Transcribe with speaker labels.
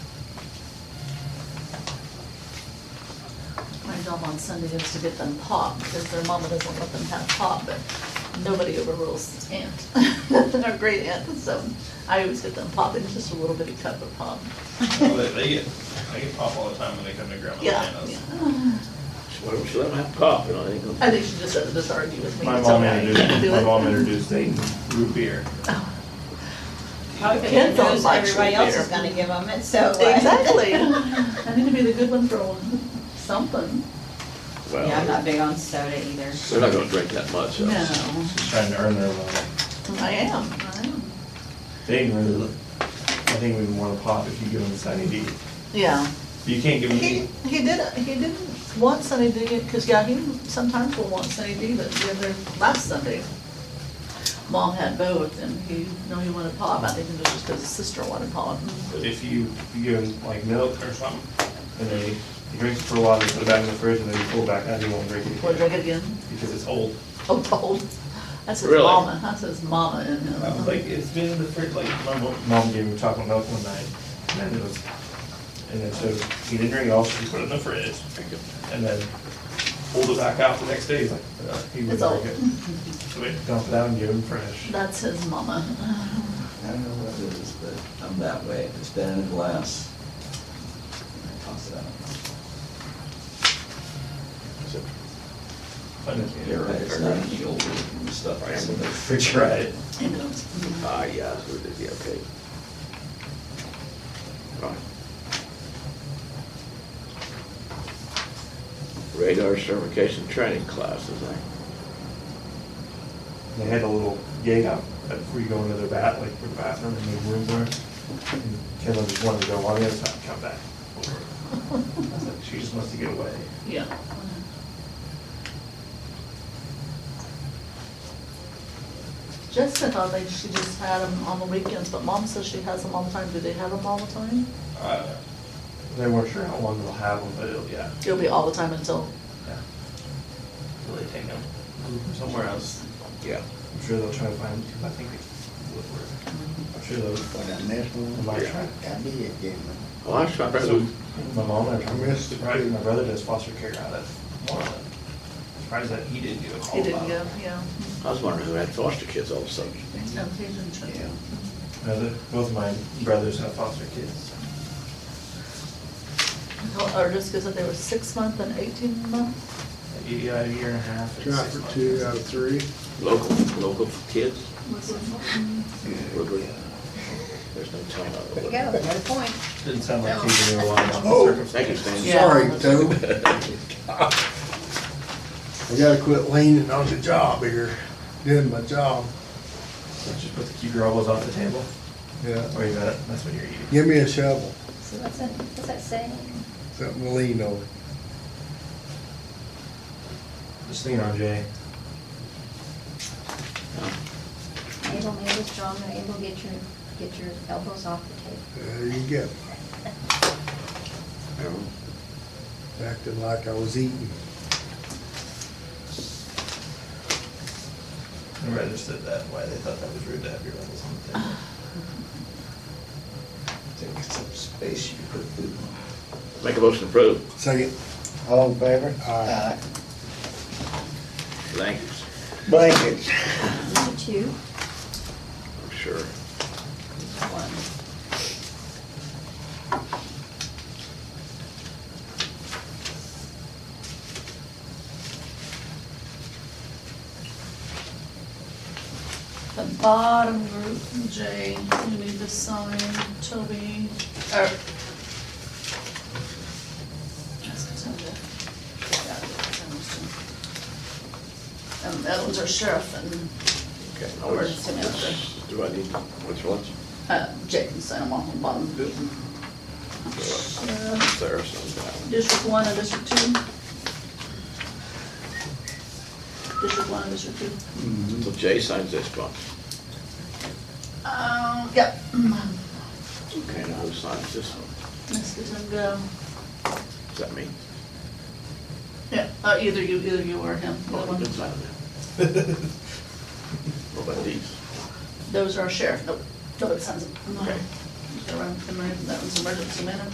Speaker 1: job on Sunday is to get them pop, because their mama doesn't let them have pop, but nobody overrules aunt, or great aunt, so I always get them pop, it's just a little bitty cup of pop.
Speaker 2: Well, They they get, they get pop all the time when they come to grandma's
Speaker 1: Yeah,
Speaker 2: Nana's.
Speaker 1: yeah.
Speaker 3: Why don't you let them have pop, you know, I think.
Speaker 1: I think she just doesn't just argue with me.
Speaker 4: My
Speaker 1: It's
Speaker 4: mom
Speaker 1: okay.
Speaker 4: introduced,
Speaker 1: Do
Speaker 4: my
Speaker 1: it.
Speaker 4: mom introduced eight.
Speaker 2: Root beer.
Speaker 5: Probably
Speaker 1: Kids
Speaker 5: because
Speaker 1: don't
Speaker 5: knows
Speaker 1: like
Speaker 5: everybody
Speaker 1: root
Speaker 5: else
Speaker 1: beer.
Speaker 5: is gonna give them it, so. uh,
Speaker 1: Exactly. I need to be the good one for one, something.
Speaker 5: Yeah, I'm
Speaker 3: Well,
Speaker 5: not big on soda either.
Speaker 3: they're not gonna drink that much, so.
Speaker 1: No,
Speaker 4: She's trying to earn their love.
Speaker 1: I am, I am.
Speaker 4: They didn't really, look- I think we want to pop if you give them Sunny D.
Speaker 1: Yeah.
Speaker 4: You can't give them
Speaker 1: He,
Speaker 4: D.
Speaker 1: he did, he didn't want Sunny D, because, yeah, he sometimes will want Sunny D, but the other, last Sunday, Mom had both, and he, no, he wanted pop, I think it was just because his sister wanted pop.
Speaker 4: But if you, you give them like milk or something, and they, you drink it for a while, they put it back in the fridge, and then you pull it back out, you won't drink it
Speaker 1: Would drink
Speaker 4: again,
Speaker 1: it again,
Speaker 4: because it's old.
Speaker 1: oh, cold. That's his
Speaker 3: Really?
Speaker 1: mama, that's his mama in him.
Speaker 2: I was like, it's been in the fridge, like, my mom,
Speaker 4: Mom gave him chocolate milk one night, and it was, and then so he didn't drink it all, so he put it in the fridge,
Speaker 3: Drink it.
Speaker 4: and then pulled it back out the next day, he's like, uh, he
Speaker 1: It's
Speaker 4: wouldn't
Speaker 1: old.
Speaker 4: drink it. So we dumped it out and gave him fresh.
Speaker 1: That's his mama.
Speaker 6: I don't know what it is, but I'm that way. If it's been in a glass, I toss it out.
Speaker 4: But
Speaker 6: You're right, it's not any older than the stuff I am in the refrigerator.
Speaker 1: He knows.
Speaker 3: Ah, yeah, so it'd be okay. Right. Radar certification training classes, eh? I,
Speaker 4: They had a little gate out before you go into their bath, like their bathroom and the room there. And Kendall just wanted to go on the other side, come back. I was like, She just wants to get away.
Speaker 1: Yeah. Jessica thought they, she just had them on the weekends, but mom says she has them all the time. Do they have them all the time?
Speaker 2: uh,
Speaker 4: They weren't sure how long they'll have them, but it'll, yeah,
Speaker 1: It'll be all the time until,
Speaker 4: yeah.
Speaker 2: really take them somewhere else.
Speaker 3: yeah.
Speaker 4: I'm sure they'll try to find, because I think they would work. I'm sure they'll,
Speaker 7: But I missed
Speaker 4: I
Speaker 7: one,
Speaker 4: might try.
Speaker 7: I did, didn't
Speaker 3: Well, I was trying
Speaker 4: So,
Speaker 3: to,
Speaker 4: My mom, and
Speaker 7: I missed it.
Speaker 4: my brother, my brother does foster care out of Moreland. Surprised that he didn't get a call
Speaker 1: he
Speaker 4: about
Speaker 1: didn't go,
Speaker 4: it.
Speaker 1: yeah.
Speaker 3: I was wondering who had foster kids all of a sudden.
Speaker 1: No, he didn't
Speaker 7: I?
Speaker 1: check.
Speaker 7: Yeah.
Speaker 4: Brother- Both of my brothers have foster kids.
Speaker 1: Or just because they were six month and eighteen month?
Speaker 4: Eighty out of a year and a half. and
Speaker 7: Try
Speaker 4: six
Speaker 7: for
Speaker 4: months.
Speaker 7: two out of three.
Speaker 3: Local, local kids, Woodward.
Speaker 7: Yeah.
Speaker 3: There's no telling. how it
Speaker 5: There you
Speaker 3: would-
Speaker 5: go, another point.
Speaker 4: Didn't sound like you knew a lot about the
Speaker 7: Oh.
Speaker 3: Thank you,
Speaker 4: circumstances.
Speaker 3: Stan.
Speaker 1: Yeah.
Speaker 7: Sorry, Toby. I gotta quit leaning on the job here, doing my job,
Speaker 4: Just put the, keep your elbows off the table,
Speaker 7: yeah.
Speaker 4: or you got it, that's what you're eating.
Speaker 7: Give me a shovel,
Speaker 5: So what's that, what's that saying?
Speaker 7: something to lean on.
Speaker 4: Just lean on Jay.
Speaker 8: Able, able, strong, or able, get your, get your elbows off the table.
Speaker 7: There you go,
Speaker 3: Yeah.
Speaker 7: acting like I was eating.
Speaker 4: My brother said that, why they thought that was rude to have your elbows on the table.
Speaker 6: Take up some space you could put food on.
Speaker 3: Make a motion to approve.
Speaker 7: Second,
Speaker 6: All in favor?
Speaker 7: Aye.
Speaker 3: Thank you,
Speaker 6: Blankets.
Speaker 8: You too.
Speaker 3: I'm sure.
Speaker 1: The bottom group, Jay, you need to sign, Toby, or. That's Toby. Yeah, that's Toby. And that was our sheriff and,
Speaker 3: Okay.
Speaker 1: Or just an extra.
Speaker 3: Do I need, which ones?
Speaker 1: uh, Jay can sign them all on the bottom group. Sheriff,
Speaker 3: Sarah, some
Speaker 1: District one and district two. District one and district two.
Speaker 3: down. So Jay signs this one.
Speaker 1: Um, yep.
Speaker 3: Okay, now who signs this one?
Speaker 1: Let's get him go.
Speaker 3: Is that me?
Speaker 1: Yeah, uh, either you, either you or him, the
Speaker 3: Oh,
Speaker 1: one.
Speaker 3: you can sign it. What about these?
Speaker 1: Oh, Those are sheriff, nope, no, it sounds, no.
Speaker 3: Okay.
Speaker 1: Around, that was emergency management.